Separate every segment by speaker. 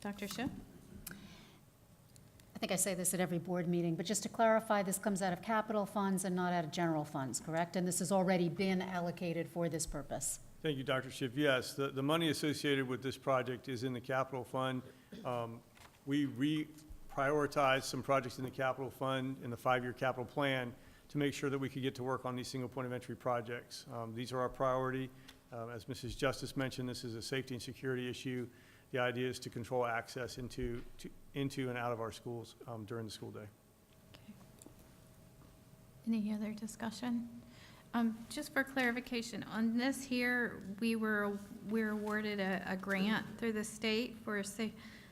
Speaker 1: Dr. Shu?
Speaker 2: I think I say this at every board meeting, but just to clarify, this comes out of capital funds and not out of general funds, correct? And this has already been allocated for this purpose.
Speaker 3: Thank you, Dr. Schiff. Yes, the, the money associated with this project is in the capital fund. Um, We reprioritized some projects in the capital fund in the five-year capital plan to make sure that we could get to work on these single point of entry projects. Um, These are our priority. Um, As Mrs. Justice mentioned, this is a safety and security issue. The idea is to control access into, to- into and out of our schools um, during the school day.
Speaker 1: Any other discussion? Um, Just for clarification, on this here, we were, we were awarded a, a grant through the state for sa-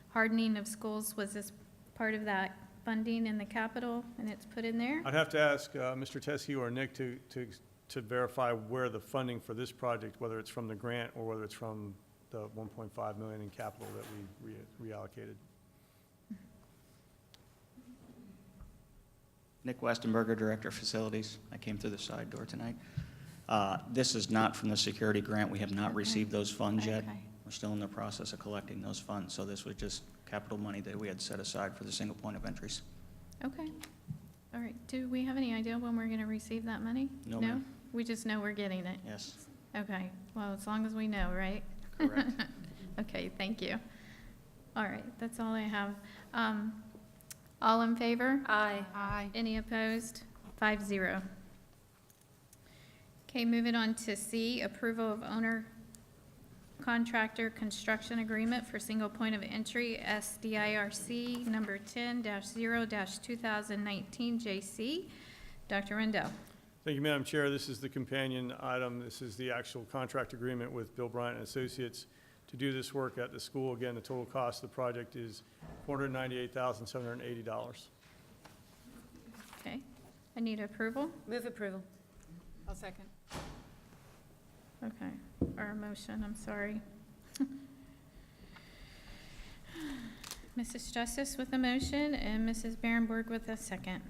Speaker 1: hardening of schools. Was this part of that funding in the capital and it's put in there?
Speaker 3: I'd have to ask uh, Mr. Teskey or Nick to, to, to verify where the funding for this project, whether it's from the grant or whether it's from the 1.5 million in capital that we re- reallocated.
Speaker 4: Nick Westenberger, Director of Facilities. I came through the side door tonight. Uh, This is not from the security grant. We have not
Speaker 1: Okay.
Speaker 4: received those funds yet.
Speaker 1: Okay.
Speaker 4: We're still in the process of collecting those funds, so this was just capital money that we had set aside for the single point of entries.
Speaker 1: Okay. All right. Do we have any idea when we're going to receive that money?
Speaker 4: No, ma'am.
Speaker 1: We just know we're getting it.
Speaker 4: Yes,
Speaker 1: Okay. Well, as long as we know, right?
Speaker 4: correct.
Speaker 1: Okay, thank you. All right, that's all I have. Um, All in favor?
Speaker 5: Aye.
Speaker 1: Aye. Any opposed? Five zero. Okay, moving on to C, approval of owner contractor construction agreement for single point of entry, SDIRC number ten zero two thousand nineteen JC. Dr. Rendell.
Speaker 3: Thank you, Madam Chair. This is the companion item. This is the actual contract agreement with Bill Bryant and Associates to do this work at the school. Again, the total cost of the project is $498,780.
Speaker 1: Okay, I need approval.
Speaker 5: Move approval.
Speaker 6: I'll second.
Speaker 1: Okay, or a motion, I'm sorry. Mrs. Justice with a motion and Mrs. Barrenborg with a second.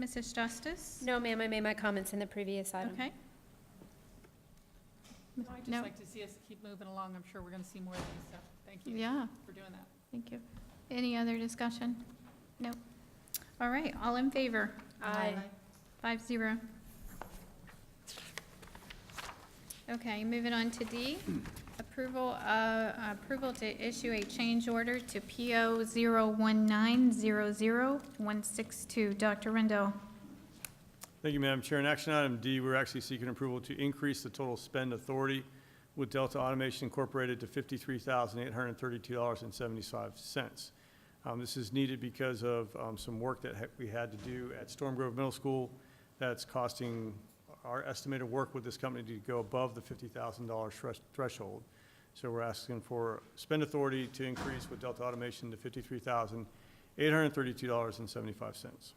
Speaker 1: Mrs. Justice?
Speaker 5: No, ma'am, I made my comments in the previous item.
Speaker 1: Okay.
Speaker 6: I'd
Speaker 1: No.
Speaker 6: just like to see us keep moving along. I'm sure we're going to see more of these, so thank you
Speaker 1: Yeah,
Speaker 6: for doing that.
Speaker 1: thank you. Any other discussion? Nope. All right, all in favor?
Speaker 5: Aye.
Speaker 1: Five zero. Okay, moving on to D, approval, uh, approval to issue a change order to PO zero one nine zero zero one six two. Dr. Rendell.
Speaker 3: Thank you, Madam Chair. In action item D, we're actually seeking approval to increase the total spend authority with Delta Automation Incorporated to fifty-three thousand eight hundred and thirty-two dollars and seventy-five cents. Um, this is needed because of, um, some work that ha- we had to do at Storm Grove Middle School that's costing our estimated work with this company to go above the fifty thousand dollar threshold. So we're asking for spend authority to increase with Delta Automation to fifty-three thousand eight hundred and thirty-two dollars and seventy-five cents.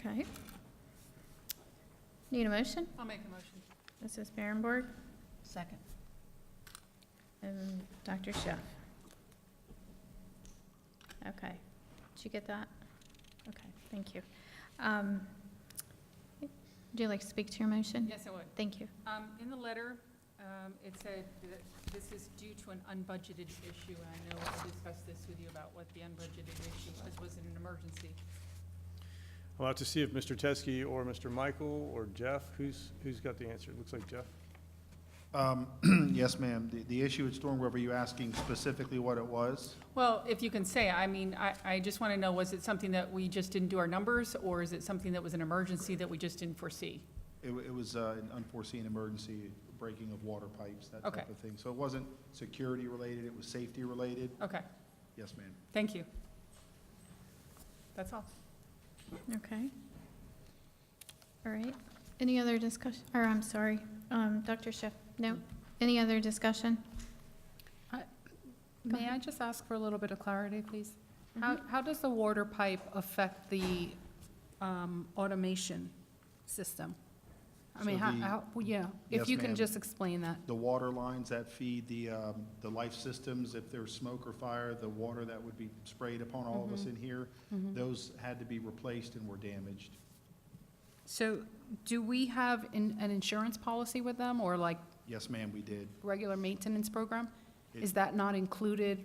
Speaker 1: Okay. Need a motion?
Speaker 6: I'll make a motion.
Speaker 1: Mrs. Barrenborg
Speaker 2: Second.
Speaker 1: and Dr. Schiff. Okay, did you get that? Okay, thank you. Um, Would you like to speak to your motion?
Speaker 6: Yes, I would.
Speaker 1: Thank you.
Speaker 6: Um, In the letter, um, it said that this is due to an unbudgeted issue, and I know I discussed this with you about what the unbudgeted issue was, was it an emergency?
Speaker 3: I'll have to see if Mr. Teskey or Mr. Michael or Jeff, who's, who's got the answer? It looks like Jeff.
Speaker 7: Um, Yes, ma'am. The- The issue at Storm Grove, are you asking specifically what it was?
Speaker 6: Well, if you can say, I mean, I, I just want to know, was it something that we just didn't do our numbers, or is it something that was an emergency that we just didn't foresee?
Speaker 7: It wa- it was uh, an unforeseen emergency, breaking of water pipes, that
Speaker 6: Okay.
Speaker 7: type of thing. So it wasn't security related, it was safety related.
Speaker 6: Okay,
Speaker 7: Yes, ma'am.
Speaker 6: thank you. That's all.
Speaker 1: Okay. All right. Any other discussion, or I'm sorry, um, Dr. Schiff, no? Any other discussion? Go
Speaker 8: May
Speaker 1: ahead. Mm-hmm.
Speaker 8: I just ask for a little bit of clarity, please? How, how does the water pipe affect the um, automation system? I mean,
Speaker 7: So
Speaker 8: how,
Speaker 7: the-
Speaker 8: how, well, yeah, if
Speaker 7: Yes,
Speaker 8: you can
Speaker 7: ma'am.
Speaker 8: just explain that.
Speaker 7: The water lines that feed the, um, the life systems, if there's smoke or fire, the water that would be sprayed upon all of us in here, those had to be replaced and were damaged.
Speaker 8: So do we have an, an insurance policy with them or like
Speaker 7: Yes, ma'am, we did.
Speaker 8: regular maintenance program?
Speaker 7: It-
Speaker 8: Is that not included